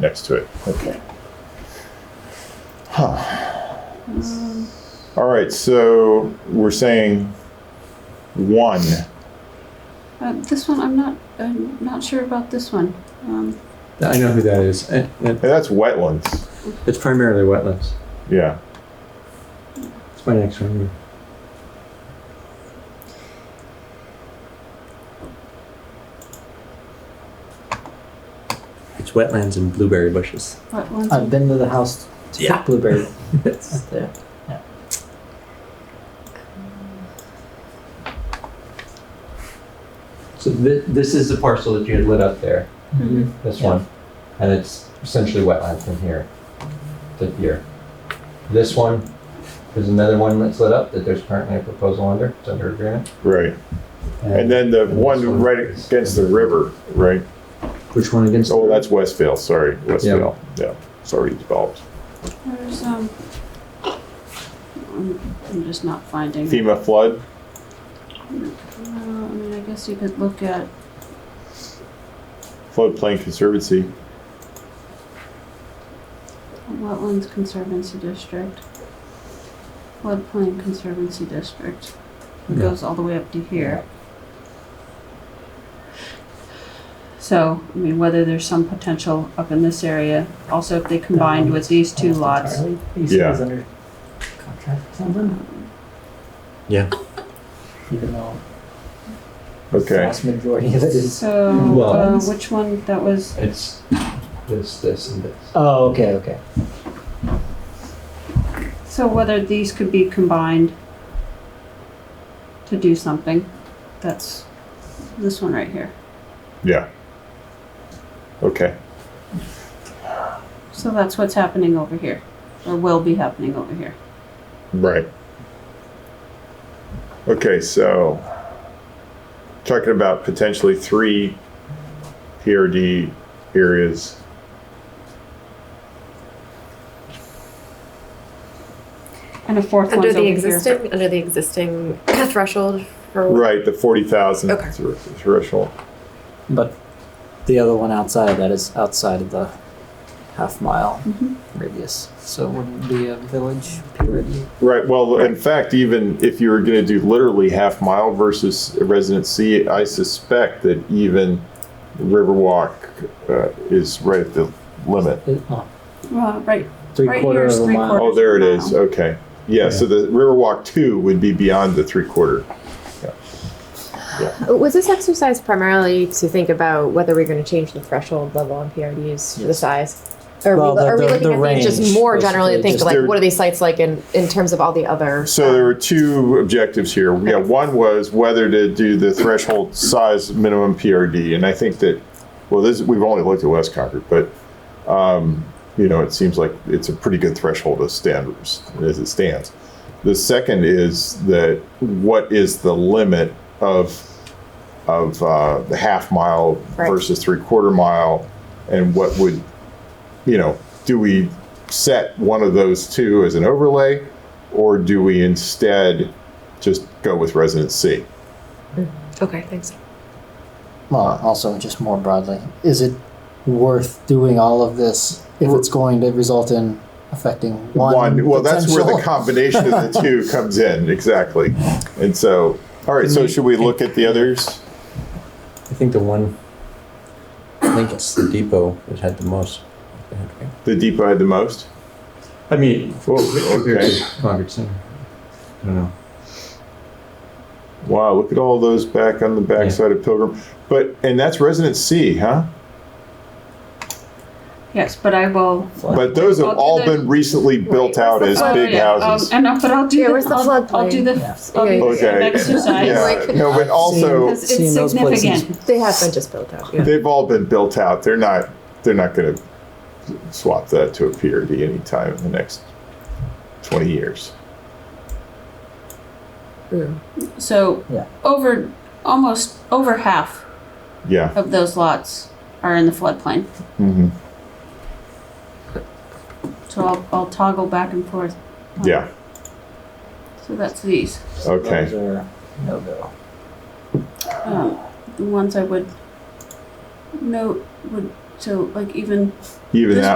next to it. Okay. Um, Huh. All right, so we're saying one. Uh, this one, I'm not uh, not sure about this one. Um, I know who that is. And- and And that's wetlands. It's primarily wetlands. Yeah. It's my next one. yeah. It's wetlands and blueberry bushes. what one's I've been to the house to Yeah. pick blueberry. It's- there. So thi- this is the parcel that you had lit up there, Mm-hmm. Mm-hmm. this one, and it's essentially wetland from here to here. This one, there's another one that's lit up that there's currently a proposal under, it's under agreement. Right. And then the one right against the river, right? Which one against? Oh, that's Westvale, sorry, Westvale. Yeah, it's already developed. There's um. I'm, I'm just not finding. it. FEMA flood, Uh, I mean, I guess you could look at. floodplain conservancy. Wetlands Conservancy District, Floodplain Conservancy District. It Yeah. goes all the way up to here. So, I mean, whether there's some potential up in this area, also if they combined with these two lots. Yeah. He's under contract or something. Yeah. Even though the Okay, vast majority of it is. So, uh, Well- which one, that was, It's this, this, and this. Oh, okay, okay. so whether these could be combined to do something, that's this one right here. yeah. Okay, So that's what's happening over here, or will be happening over here. right. Okay, so talking about potentially three PRD areas. And a fourth Under one's the over existing, here. under the existing threshold for Right, the forty thousand Okay. threshold. But the other one outside of that is outside of the half mile Mhm. radius. So it wouldn't be a village purity. Right. Well, in fact, even if you were going to do literally half mile versus resident C, I suspect that even Riverwalk uh, is right at the limit. It, oh, Well, right, three Right quarter here is of a three mile. quarter. Oh, there it is. Okay. Yeah. So the Riverwalk two would be beyond the three quarter. Uh, Was this exercise primarily to think about whether we're going to change the threshold level on PRDs for the size? Or Well, are we, the- are the- we looking the at range, these just more generally basically, to think just like there- what are these sites like in, in terms of all the other? So there were two objectives here. Yeah, one was whether to do the threshold size minimum PRD, and I think that, well, this we've only looked at West Concord, but um, you know, it seems like it's a pretty good threshold of standards as it stands. The second is that what is the limit of of uh, the half mile Right. versus three quarter mile, and what would you know, do we set one of those two as an overlay, or do we instead just go with resident C? okay, thanks. Well, also just more broadly, is it worth doing all of this if it's going to result in affecting one? well, that's where the potential- combination of the two comes in exactly. And so, all right. So should we look at the others? I think the one. I think it's the depot that had the most. The depot had the most. I mean, Oh, okay. Concord Center. I don't know. Wow, look at all those back on the backside of Pilgrim. But and that's resident C, huh? yes, but I will. But those have I'll do all the- been recently built out as Oh, big yeah, um, houses. And, I'll- but I'll do, Yeah, the- where's the I'll- I'll floodplain? do the, Yeah. I'll Yeah, do yeah, the Okay. exercise. Yeah. No, but also Same. Because Seeing it's those places. significant. They have been just built out. Yeah. They've all been built out. They're not. They're not going to swap that to a PRD anytime in the next twenty years. Mm. So Yeah. over, almost over half Yeah. of those lots are in the floodplain. hmm So I'll, I'll toggle back and forth. Yeah. So that's these. Okay. Those are no go. Um, the ones I would note would So like even Even This that